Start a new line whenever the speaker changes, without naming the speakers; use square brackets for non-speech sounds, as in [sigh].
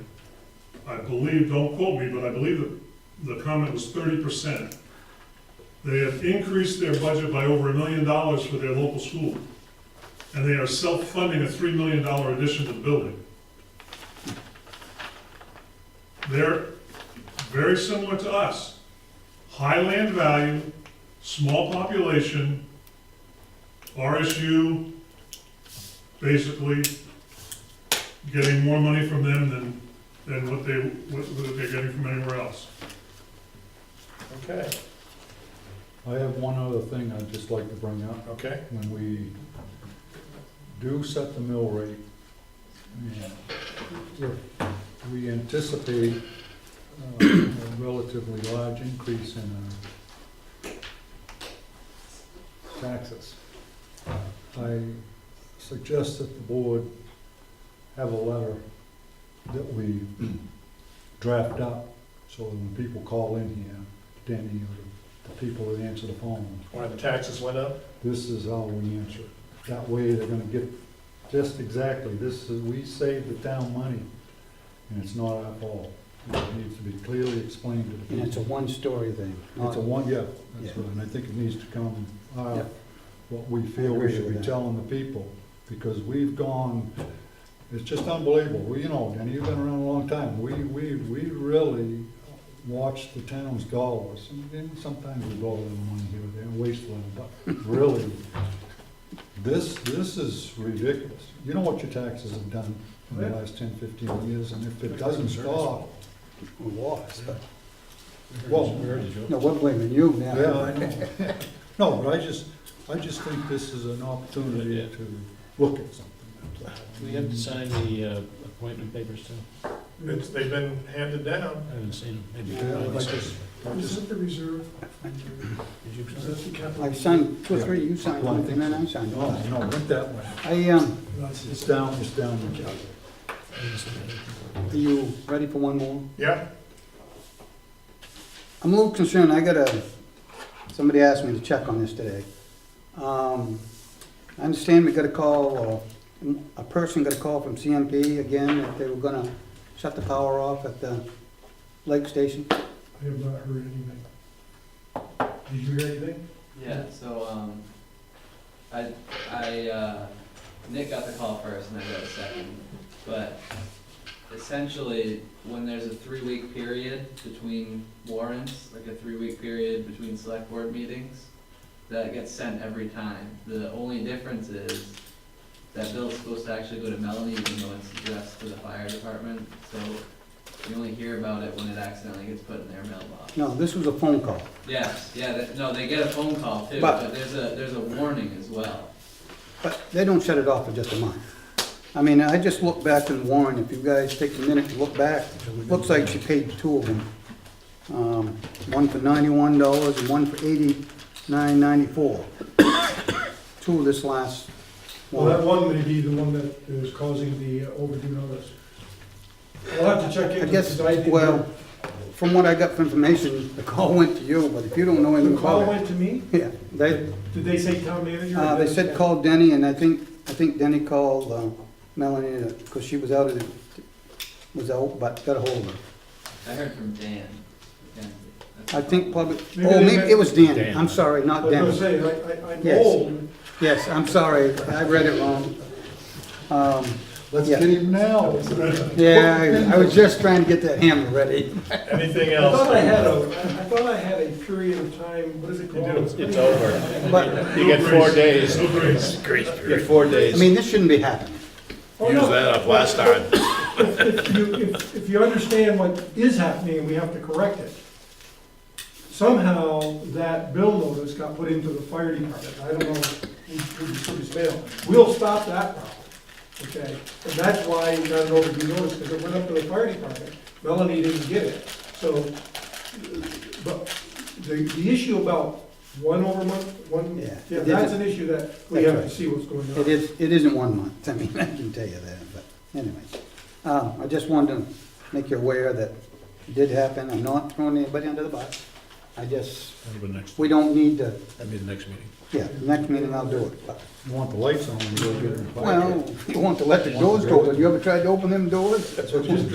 I believe, don't quote me, but I believe the, the comment was thirty percent. They have increased their budget by over a million dollars for their local school. And they are self-funding a three million dollar addition to the building. They're very similar to us. High land value, small population, RSU, basically getting more money from them than than what they, what what they're getting from anywhere else.
Okay,
I have one other thing I'd just like to bring up.
okay.
When we do set the mill rate, and if we anticipate uh, a relatively large increase in our taxes. I suggest that the board have a letter that we draft up, so that when people call in here, Danny or the people that answer the phone,
Why the taxes went up?
this is how we answer. it. That way, they're gonna get just exactly, this is, we saved the town money, and it's not our fault. It needs to be clearly explained to the
And
people.
it's a one-story thing.
It's a one, yeah, that's
Yeah.
right, and I think it needs to come out,
Oh, Yeah.
what we feel
agree
we should
with
be
that.
telling the people, because we've gone, it's just unbelievable, we, you know, Danny, you've been around a long time, we, we, we really watch the town's dollars, and then sometimes we blow a little money here and there, and waste a little, but really, this, this is ridiculous. You know what your taxes have done in the
Yeah.
last ten, fifteen years, and if it doesn't stop, we lost. Well,
No, we're blaming you now.
yeah, I know. [laughs] No, but I just, I just think this is an opportunity to look at something.
We have to sign the uh, appointment papers too.
It's, they've been handed
I
down.
haven't seen them. Maybe.
Yeah, I just, I
Is
just,
it the reserve?
Did you
Is
sign
that the capital?
I've signed two or three, you signed one, and then I signed one.
oh, no, went that way.
I, um,
That's it.
It's down, it's down. the alley.
are you ready for one more?
Yeah,
I'm a little concerned, I got a, somebody asked me to check on this today. Um, I understand we got a call, or a person got a call from CMP again, that they were gonna shut the power off at the lake station.
I have not heard anything. Did you hear anything?
Yeah, so, um, I, I, uh, Nick got the call first and I got it second, but essentially, when there's a three-week period between warrants, like a three-week period between select board meetings, that gets sent every time. The only difference is that bill's supposed to actually go to Melanie, even though it's addressed to the fire department, so you only hear about it when it accidentally gets put in their mailbox.
No, this was a phone call.
Yes, yeah, that, no, they get a phone call too,
But-
but there's a, there's a warning as well.
But they don't shut it off for just a month. I mean, I just look back and warn, if you guys take a minute to look back, looks like she paid two of them. Um, One for ninety-one dollars and one for eighty-nine ninety-four. Two of this last
Well, that
one.
one may be the one that is causing the overdue notice. I'll have to check
I
in
guess,
because I didn't.
well, from what I got for information, the call went to you, but if you don't know anything
The call
about it.
went to me?
Yeah, they,
Did they say town manager?
Uh, they said call Denny, and I think, I think Denny called uh, Melanie, because she was out, of the- was out, but got a hold of her.
I heard from Dan. McKenzie. That's-
I think probably,
Maybe
oh,
they
maybe,
meant-
it was Danny,
Dan.
I'm sorry,
I
not
was gonna
Denny.
say, I, I, I'm
Yes.
old.
Yes, I'm sorry, I read it wrong. Um,
Let's
Yeah.
get him now.
Yeah, I- I was just trying to get that hammer ready.
anything
I thought I
else?
had a, I thought I had a period of time, what is it called?
It's over.
But,
You get four days.
No grace.
You get four
I
days.
mean, this shouldn't be happening.
Oh,
used
no.
that up last time.
[laughs] If you, if, if you understand what is happening, we have to correct it. Somehow, that bill notice got put into the fire department, I don't know, who, who distributes mail. We'll stop that problem, okay? And that's why you got an overdue notice, because it went up to the fire department, Melanie didn't get it. So, but the, the issue about one over month, one,
Yeah.
yeah, that's an issue that we have to see what's going on.
It is, it isn't one month, I mean, [laughs] I can tell you that, but anyway. Uh, I just wanted to make you aware that it did happen, I'm not throwing anybody under the bus. I just,
That'll be next,
we don't need to,
that'll be the next meeting.
yeah, the next meeting I'll do it. But-
You want the lights on, you go get him.
Well, you want to let the doors go, but you ever tried to open them doors?
That's what you